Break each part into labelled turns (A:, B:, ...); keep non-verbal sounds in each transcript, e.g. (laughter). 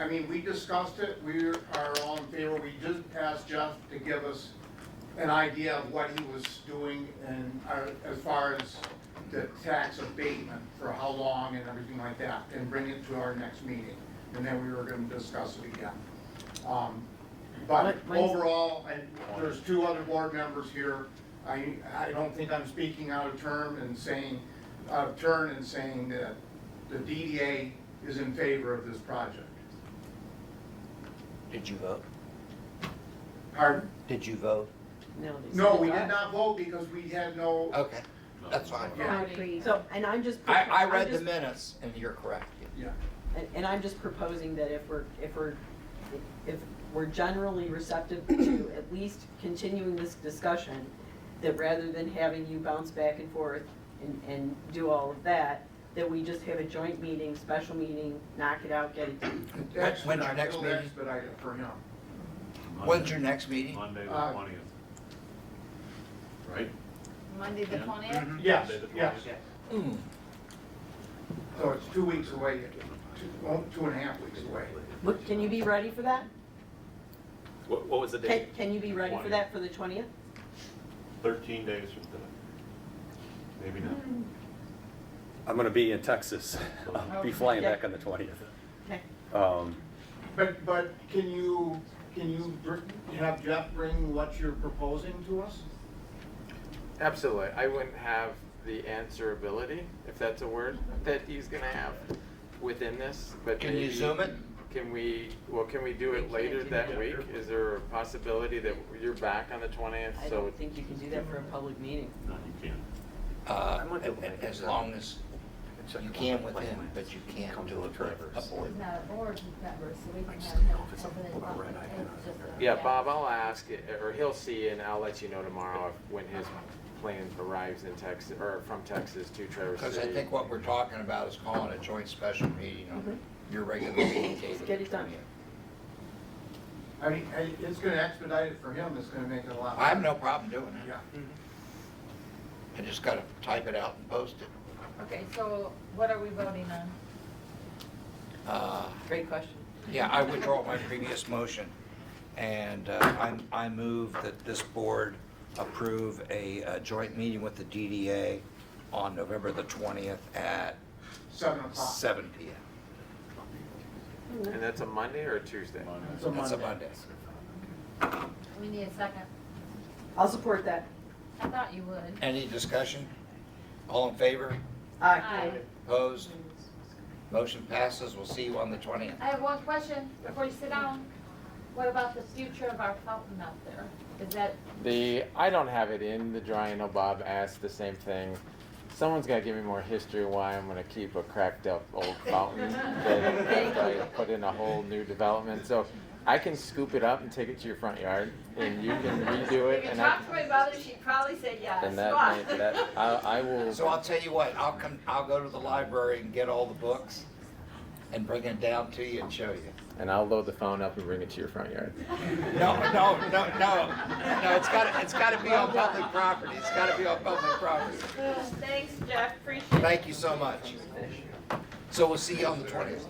A: I mean, we discussed it, we are all in favor, we just asked Jeff to give us an idea of what he was doing and uh, as far as the tax abatement, for how long and everything like that, and bring it to our next meeting, and then we were gonna discuss it again. Um, But
B: What- when's-
A: overall, and there's two other board members here, I, I don't think I'm speaking out of term and saying, out of turn and saying that the DDA is in favor of this project.
C: Did you vote?
A: Pardon?
C: Did you vote?
B: No, they
A: No,
B: said
A: we
B: it's
A: did not vote because we had no,
C: Okay, that's fine.
A: Yeah.
B: concrete. So, and I'm just.
C: I, I
B: I'm
C: read the
B: just-
C: minutes and you're correct.
A: yeah.
B: And, and I'm just proposing that if we're, if we're, if we're generally receptive to at least continuing this discussion, that rather than having you bounce back and forth and, and do all of that, that we just have a joint meeting, special meeting, knock it out, get it done.
C: When's your
A: Expedite-
C: next
A: it'll
C: meeting?
A: Expedite it for him.
C: When's your next meeting?
D: Monday the
A: Uh,
D: twentieth. Right?
E: Monday the
D: Yeah.
E: twentieth?
C: Mm-hmm.
A: Yes,
D: Monday the
A: yes.
D: 20th.
C: Hmm,
A: So it's two weeks away, two, well, two and a half weeks away.
B: What- Can you be ready for that?
F: What, what was the
B: Can,
F: date?
B: can you be ready for that for the twentieth?
D: Thirteen days from today. Maybe not.
G: Hmm.
H: I'm gonna be in Texas. (laughs) I'll be flying
B: Okay.
H: back on the twentieth.
B: Okay.
H: Um,
A: But, but can you, can you br- have Jeff bring what you're proposing to us?
I: Absolutely. I wouldn't have the answerability, if that's a word, that he's gonna have within this, but
C: Can you
I: maybe-
C: zoom it?
I: Can we, well, can we do
B: We
I: it
B: can't
I: later
B: do
I: that
B: that.
I: week? Is there a possibility that you're back on the twentieth,
B: I
I: so
B: don't think you can do that for a public meeting.
D: No, you can't.
C: Uh, a- a- as long as you can with him, but you can't do it with a board.
E: He's not a board member, so we can have him as an invite. It's just a-
I: Yeah, Bob, I'll ask, uh, or he'll see, and I'll let you know tomorrow if- when his plane arrives in Texas, or from Texas to Traverse City.
C: Because I think what we're talking about is calling a joint special meeting on your regular meeting date of
B: Mm-hmm.
C: the
B: Get it done.
C: 20th.
A: I mean, I- it's gonna expedite it for him, it's gonna make it a lot.
C: I have no problem doing it.
A: Yeah.
B: Mm-hmm.
C: I just gotta type it out and post it.
E: Okay, so what are we voting on?
C: Uh,
B: Great question.
C: Yeah, I withdraw my previous motion, and uh, I'm- I move that this board approve a uh, joint meeting with the DDA on November the 20th at
A: Seven o'clock.
C: seven PM.
I: And that's a Monday or a Tuesday?
A: It's a
C: That's a
A: Monday.
C: Monday.
E: We need a second.
B: I'll support that.
E: I thought you would.
C: Any discussion? All in favor?
B: Aye.
E: Aye.
C: Opposed? Motion passes. We'll see you on the 20th.
E: I have one question before you sit down. What about the future of our fountain out there? Is that,
I: The I don't have it in the drawing. I know Bob asked the same thing. Someone's got to give me more history why I'm going to keep a cracked up old
E: (laughs)
I: fountain that I put in a whole new development. So I can scoop it up and take it to your front yard, and you can
E: (laughs)
I: redo
E: you
I: it.
E: can
I: And I
E: talk to my mother, she'd probably say yes.
I: and that, may, that I, I will.
C: So I'll tell you what, I'll come, I'll go to the library and get all the books and bring it down to you and show you.
I: And I'll load the phone up and bring it to your front yard.
C: No, no, no, no, no, it's gotta, it's gotta be on public property, it's gotta be on public property.
E: (laughs) Thanks, Jeff, appreciate it.
C: Thank you so much. So we'll see you on the twentieth.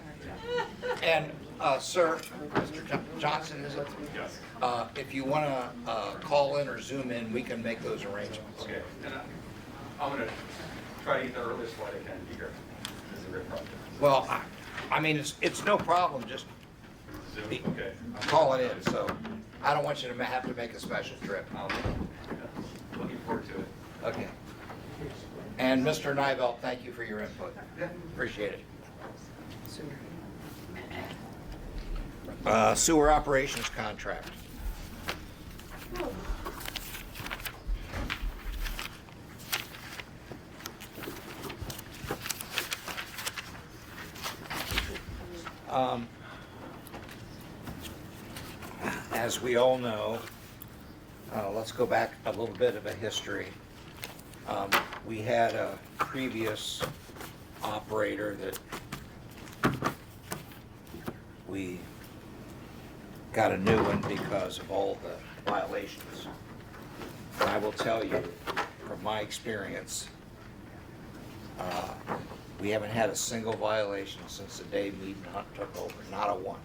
C: And, uh, sir, Mr. Jo- Johnson, is it?
D: Yes.
C: Uh, if you wanna, uh, call in or zoom in, we can make those arrangements.
G: Okay, and I- I'm gonna try to get the earliest flight I can to be here. This is a great project.
C: Well, I, I mean, it's, it's no problem, just
G: Zoom,
C: Be-
G: okay.
C: call it in, so I don't want you to ma- have to make a special trip.
G: I'll- yeah, Looking forward to it.
C: Okay. And Mr. Nivell, thank you for your input. Appreciate it. Uh, Sewer operations contract. Um, As we all know, uh, let's go back a little bit of a history. Um, We had a previous operator that we got a new one because of all the violations. And I will tell you, from my experience, uh, we haven't had a single violation since the day Mead Hunt took over, not a one.